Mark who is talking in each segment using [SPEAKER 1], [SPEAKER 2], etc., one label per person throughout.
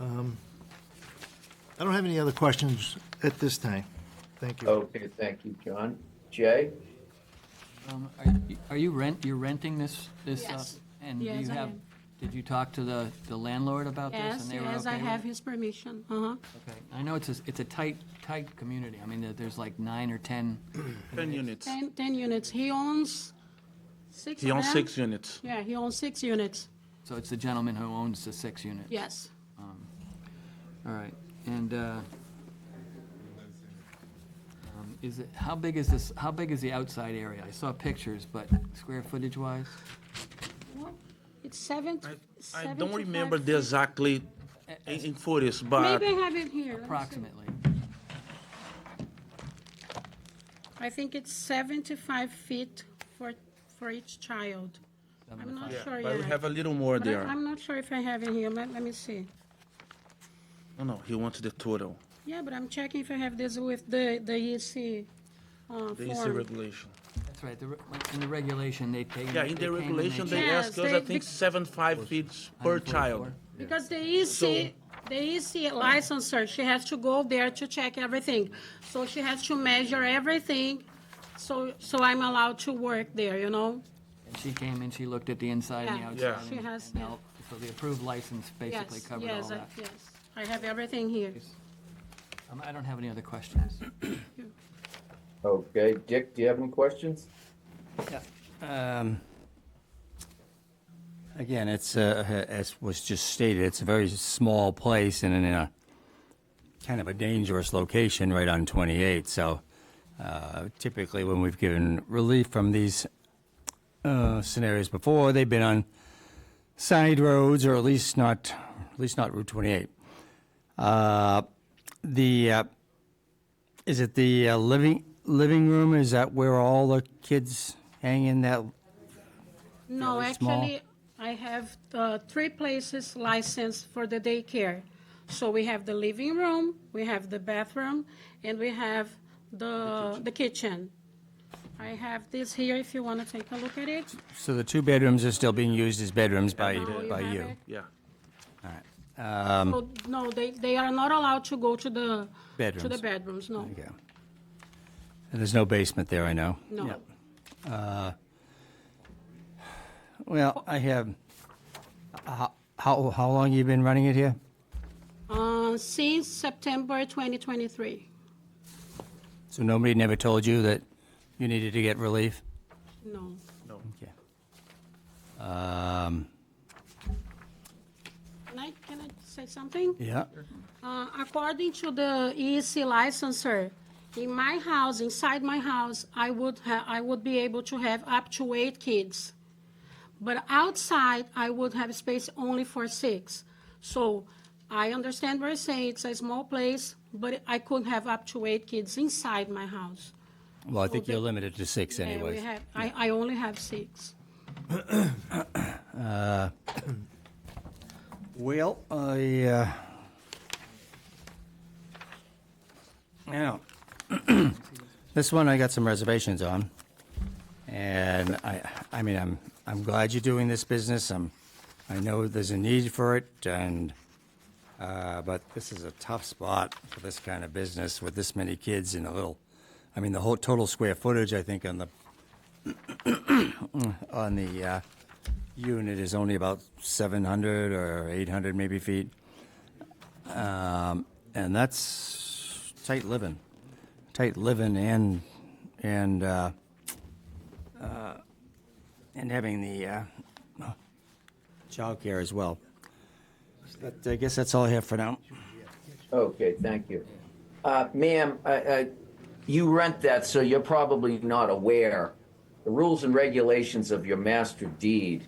[SPEAKER 1] Um, I don't have any other questions at this time. Thank you.
[SPEAKER 2] Okay, thank you, John. Jay?
[SPEAKER 3] Um, are- Are you rent, you're renting this, this? uh,
[SPEAKER 4] Yes.
[SPEAKER 3] And do
[SPEAKER 4] Yes,
[SPEAKER 3] you
[SPEAKER 4] I
[SPEAKER 3] have,
[SPEAKER 4] am.
[SPEAKER 3] did you talk to the, the landlord about this?
[SPEAKER 4] Yes,
[SPEAKER 3] and they were
[SPEAKER 4] yes, I
[SPEAKER 3] okay with
[SPEAKER 4] have
[SPEAKER 3] it?
[SPEAKER 4] his permission, uh-huh.
[SPEAKER 3] Okay. I know it's a, it's a tight, tight community. I mean, there- there's like nine or 10.
[SPEAKER 5] 10 units.
[SPEAKER 4] Ten, ten units, he owns six
[SPEAKER 5] He
[SPEAKER 4] of
[SPEAKER 5] owns
[SPEAKER 4] them?
[SPEAKER 5] six units.
[SPEAKER 4] Yeah, he owns six units,
[SPEAKER 3] So it's the gentleman who owns the six unit.
[SPEAKER 4] yes.
[SPEAKER 3] All right. And, uh, um, is it, how big is this, how big is the outside area? I saw pictures, but square footage wise?
[SPEAKER 4] What? It's seven,
[SPEAKER 5] I
[SPEAKER 4] seventy-five.
[SPEAKER 5] don't remember the exactly in in footage, but
[SPEAKER 4] Maybe I have it here. Let me see.
[SPEAKER 3] Approximately.
[SPEAKER 4] I think it's seventy-five feet for, for each child. I'm not sure
[SPEAKER 5] but we
[SPEAKER 4] yet.
[SPEAKER 5] have a little more
[SPEAKER 4] But I-
[SPEAKER 5] there.
[SPEAKER 4] I'm not sure if I have it here, let, let me see.
[SPEAKER 5] No, no, he wants the total.
[SPEAKER 4] Yeah, but I'm checking if I have this with the, the EC, uh,
[SPEAKER 5] This is the E
[SPEAKER 4] form.
[SPEAKER 5] regulation.
[SPEAKER 3] That's right. The re- like, In the regulation, they came.
[SPEAKER 5] Yeah, in
[SPEAKER 3] they
[SPEAKER 5] the
[SPEAKER 3] came and
[SPEAKER 5] regulation, they
[SPEAKER 4] Yes,
[SPEAKER 5] ask us, I
[SPEAKER 4] they-
[SPEAKER 5] think, seven five feet per child.
[SPEAKER 4] Because the EC, the EC licenser, she has to go there to check everything. So she has to measure everything, so, so I'm allowed to work there, you know?
[SPEAKER 3] And she came and she looked at the inside and the
[SPEAKER 4] Yeah,
[SPEAKER 3] outside.
[SPEAKER 5] Yeah.
[SPEAKER 4] she
[SPEAKER 3] and-
[SPEAKER 4] has,
[SPEAKER 3] and
[SPEAKER 4] yeah.
[SPEAKER 3] all- So the approved license basically
[SPEAKER 4] Yes,
[SPEAKER 3] covered all
[SPEAKER 4] yes, I-
[SPEAKER 3] that.
[SPEAKER 4] Yes, I have everything here.
[SPEAKER 3] Um, I don't have any other questions.
[SPEAKER 2] Okay, Dick, do you have any questions?
[SPEAKER 6] Um, Again, it's, uh, as was just stated, it's a very small place and in a kind of a dangerous location right on 28. So uh, typically, when we've given relief from these uh, scenarios before, they've been on side roads or at least not, at least not Route 28. Uh, The, uh, is it the uh, living, living room? Is that where all the kids hang in that
[SPEAKER 4] No,
[SPEAKER 6] Fairly small.
[SPEAKER 4] actually, I have uh, three places licensed for the daycare. So we have the living room, we have the bathroom, and we have the, the kitchen. I have this here if you want to take a look at it.
[SPEAKER 6] So the two bedrooms are still being used as bedrooms by,
[SPEAKER 4] Oh, you
[SPEAKER 6] by
[SPEAKER 4] have
[SPEAKER 6] you?
[SPEAKER 4] it?
[SPEAKER 5] Yeah.
[SPEAKER 4] So, No, they, they are not allowed to go to the, to the
[SPEAKER 6] Bedrooms.
[SPEAKER 4] bedrooms, no,
[SPEAKER 6] Okay. And there's no basement there, I know?
[SPEAKER 4] no.
[SPEAKER 6] Well, I have, how, how, how long you been running it here?
[SPEAKER 4] Uh, Since September 2023,
[SPEAKER 6] So nobody never told you that you needed to get relief?
[SPEAKER 4] no.
[SPEAKER 6] Okay. Um,
[SPEAKER 4] Can I, can I say something?
[SPEAKER 6] yeah,
[SPEAKER 4] Uh, According to the E EEC licenser, in my house, inside my house, I would, ha- I would be able to have up to eight kids. But outside, I would have space only for six. So I understand what you're saying, it's a small place, but I could have up to eight kids inside my house.
[SPEAKER 6] well, I think
[SPEAKER 4] they-
[SPEAKER 6] you're limited to six
[SPEAKER 4] And we
[SPEAKER 6] anyways.
[SPEAKER 4] have- I, I only have six.
[SPEAKER 6] Well, I, uh, now, this one I got some reservations on. And I, I mean, I'm, I'm glad you're doing this business. I'm, I know there's a need for it and, uh, but this is a tough spot for this kind of business with this many kids and a little, I mean, the whole total square footage, I think, on the, on the, uh, unit is only about 700 or 800 maybe feet. Um, And that's tight living, tight living and, and, uh, uh, and having the uh, childcare as well. But I guess that's all I have for now.
[SPEAKER 2] Okay, thank you. Uh, ma'am, I, I, you rent that, so you're probably not aware. The rules and regulations of your master deed,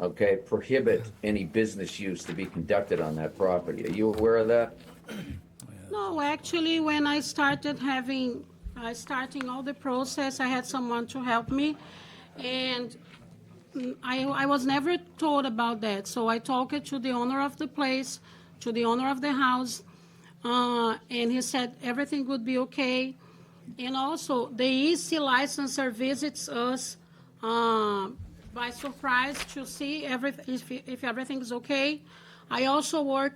[SPEAKER 2] okay, prohibit any business use to be conducted on that property. Are you aware of that?
[SPEAKER 4] No, actually, when I started having, uh, starting all the process, I had someone to help me, and mm, I, I was never told about that. So I talked to the owner of the place, to the owner of the house, uh, and he said everything would be okay. And also, the EC licenser visits us uh, by surprise to see every, if, if everything's okay. I also work